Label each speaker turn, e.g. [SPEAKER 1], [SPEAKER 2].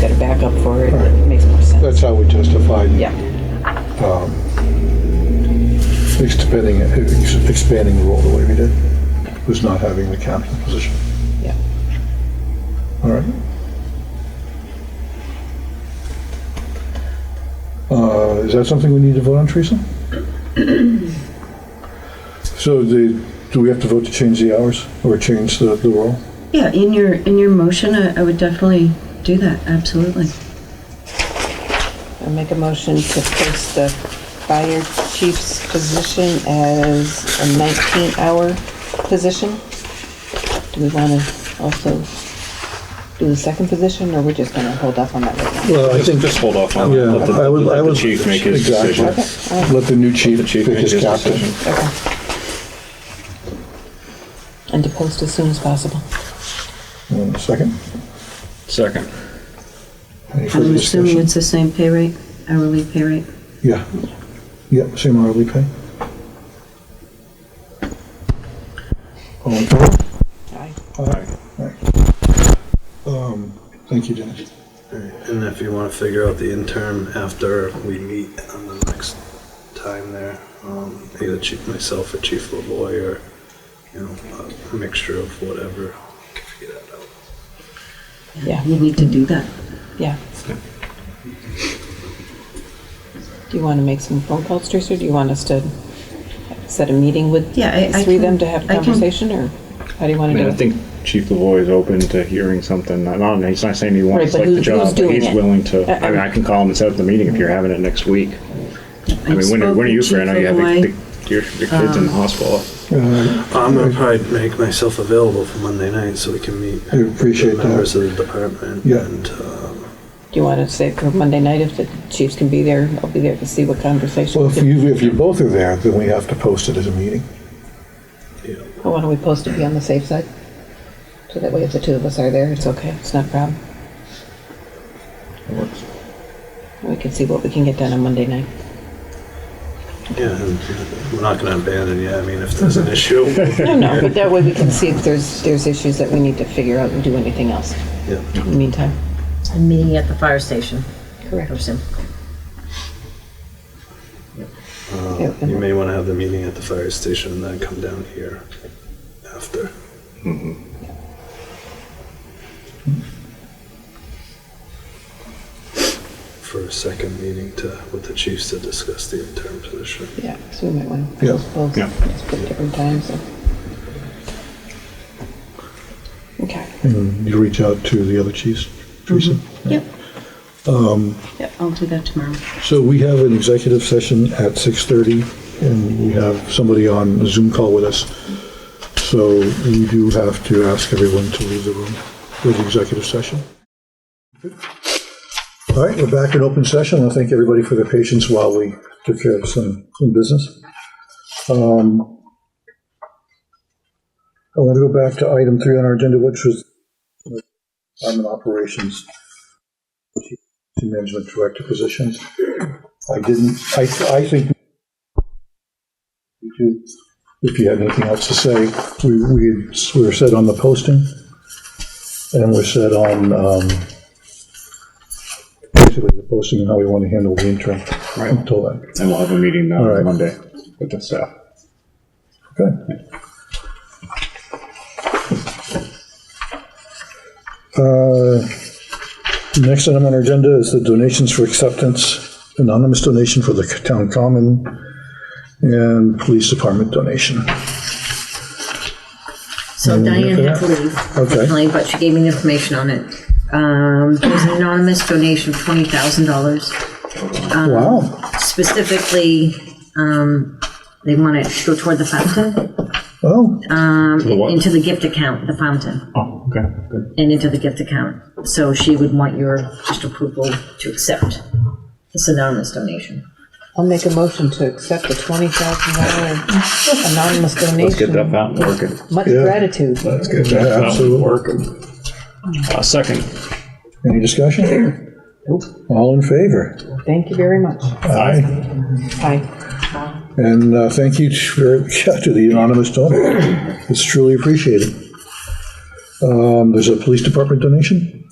[SPEAKER 1] got a backup for it,
[SPEAKER 2] Right.
[SPEAKER 1] it makes more sense.
[SPEAKER 2] That's how we justified
[SPEAKER 1] Yeah,
[SPEAKER 2] expanding, ex- expanding the role the way we did, was not having the captain position.
[SPEAKER 1] yeah.
[SPEAKER 2] All right. Uh, Is that something we need to vote on, Teresa? So the, do we have to vote to change the hours or change the, the role?
[SPEAKER 3] Yeah, in your, in your motion, I, I would definitely do that, absolutely.
[SPEAKER 1] I make a motion to post the fire chief's position as a 19-hour position. Do we want to also do the second position, or we're just going to hold up on that right now?
[SPEAKER 2] Well,
[SPEAKER 4] Just, just hold off on
[SPEAKER 2] Yeah,
[SPEAKER 4] that. Let the,
[SPEAKER 2] I would-
[SPEAKER 4] let
[SPEAKER 2] I
[SPEAKER 4] the
[SPEAKER 2] would-
[SPEAKER 4] chief make his
[SPEAKER 2] exactly.
[SPEAKER 4] decision.
[SPEAKER 2] Let the new chief
[SPEAKER 4] The chief
[SPEAKER 2] pick
[SPEAKER 4] make
[SPEAKER 2] his
[SPEAKER 4] his
[SPEAKER 2] captain.
[SPEAKER 4] decision.
[SPEAKER 1] Okay. And to post as soon as possible.
[SPEAKER 2] Uh, Second?
[SPEAKER 4] Second.
[SPEAKER 2] Any further
[SPEAKER 3] I'm assuming
[SPEAKER 2] discussion?
[SPEAKER 3] it's the same pay rate, hourly pay rate.
[SPEAKER 2] Yeah. Yeah, same hourly pay. All in favor?
[SPEAKER 1] Aye.
[SPEAKER 2] Aye. Aye. Um, Thank you, Dennis.
[SPEAKER 5] And if you want to figure out the interim after we meet on the next time there, um, either Chief myself or Chief LaVoy or, you know, a mixture of whatever, we can figure that out.
[SPEAKER 1] Yeah,
[SPEAKER 3] You need to do that.
[SPEAKER 1] yeah. Do you want to make some phone calls, Teresa, or do you want us to set a meeting with
[SPEAKER 3] Yeah, I- I
[SPEAKER 1] three of them to
[SPEAKER 3] can-
[SPEAKER 1] have a
[SPEAKER 3] I can-
[SPEAKER 1] conversation, or how do you want
[SPEAKER 6] I
[SPEAKER 1] to do
[SPEAKER 6] mean,
[SPEAKER 1] it?
[SPEAKER 6] I think Chief Lavoy is open to hearing something. Not, not- he's not saying he
[SPEAKER 1] Right,
[SPEAKER 6] wants
[SPEAKER 1] but
[SPEAKER 6] like the
[SPEAKER 1] who's- who's
[SPEAKER 6] job, but
[SPEAKER 1] doing
[SPEAKER 6] he's
[SPEAKER 1] it?
[SPEAKER 6] willing to.
[SPEAKER 1] Uh,
[SPEAKER 6] I mean, I can call him and set up the meeting if you're having it next week. I mean, when are, when are you free? I know you have the, the, your, your kids
[SPEAKER 1] Um,
[SPEAKER 6] in the hospital.
[SPEAKER 2] Uh,
[SPEAKER 5] I'm gonna probably make myself available for Monday night so we can meet.
[SPEAKER 2] I appreciate
[SPEAKER 5] the
[SPEAKER 2] that.
[SPEAKER 5] Members of the department.
[SPEAKER 2] Yeah.
[SPEAKER 5] And, um,
[SPEAKER 1] Do you want to say for Monday night if the chiefs can be there? I'll be there to see what conversation.
[SPEAKER 2] Well, if you, if you both are there, then we have to post it as a meeting.
[SPEAKER 5] you know,
[SPEAKER 1] Why don't we post to be on the safe side? So that way if the two of us are there, it's okay, it's not a problem. We can see what we can get done on Monday night.
[SPEAKER 5] yeah, and we're not gonna abandon you. I mean, if there's an issue.
[SPEAKER 1] No, no, but that way we can see if there's, there's issues that we need to figure out and do anything else
[SPEAKER 5] Yeah.
[SPEAKER 1] in the meantime.
[SPEAKER 7] I'm meeting at the fire station.
[SPEAKER 1] Correct.
[SPEAKER 7] Or some-
[SPEAKER 1] Yeah,
[SPEAKER 5] You may want to have the meeting at the fire station and then come down here after. For a second meeting to, with the chiefs to discuss the interim position.
[SPEAKER 1] Yeah, so we might want to
[SPEAKER 2] Yeah.
[SPEAKER 1] postpone,
[SPEAKER 6] Yeah.
[SPEAKER 1] just put different times. and- Okay,
[SPEAKER 2] And you reach out to the other chiefs, Teresa?
[SPEAKER 3] Yep. Yep, I'll do that tomorrow.
[SPEAKER 2] So we have an executive session at 6:30, and we have somebody on a Zoom call with us. So we do have to ask everyone to leave the room for the executive session. All right, we're back in open session. I thank everybody for their patience while we took care of some, some business. Um, I want to go back to item three on our agenda, which was uh, Department Operations to management director positions. I didn't, I, I think you do. if you had anything else to say, we, we had- we were set on the posting, and we're set on, um, basically the posting and how we want to handle the interim
[SPEAKER 6] Right.
[SPEAKER 2] until then.
[SPEAKER 6] And we'll have a meeting uh,
[SPEAKER 2] All right.
[SPEAKER 6] Monday with the staff.
[SPEAKER 2] Okay. Uh, Next item on our agenda is the donations for acceptance, anonymous donation for the town common and police department donation.
[SPEAKER 7] So
[SPEAKER 2] Mm,
[SPEAKER 7] Diane
[SPEAKER 2] okay.
[SPEAKER 7] had to leave,
[SPEAKER 2] Okay.
[SPEAKER 7] unfortunately, but she gave me the information on it. Um, there's an anonymous donation of twenty thousand dollars.
[SPEAKER 2] Wow,
[SPEAKER 7] Specifically, um, they want it to go toward the fountain,
[SPEAKER 2] oh,
[SPEAKER 6] The what?
[SPEAKER 7] into the gift account, the fountain,
[SPEAKER 6] Oh, okay. Good.
[SPEAKER 7] and into the gift account. So she would want your just approval to accept this anonymous donation.
[SPEAKER 1] I'll make a motion to accept the twenty thousand dollar anonymous
[SPEAKER 6] Let's get
[SPEAKER 1] donation.
[SPEAKER 6] that fountain working.
[SPEAKER 1] Much
[SPEAKER 2] Yeah.
[SPEAKER 1] gratitude.
[SPEAKER 6] Let's get
[SPEAKER 2] Yeah,
[SPEAKER 6] that
[SPEAKER 2] absolutely.
[SPEAKER 6] fountain working. Uh, second.
[SPEAKER 2] any discussion? All in favor?
[SPEAKER 1] Thank you very much.
[SPEAKER 2] Aye.
[SPEAKER 1] Hi.
[SPEAKER 2] And uh, thank you to very- yeah, to the anonymous donor. It's truly appreciated. Um, There's a police department donation?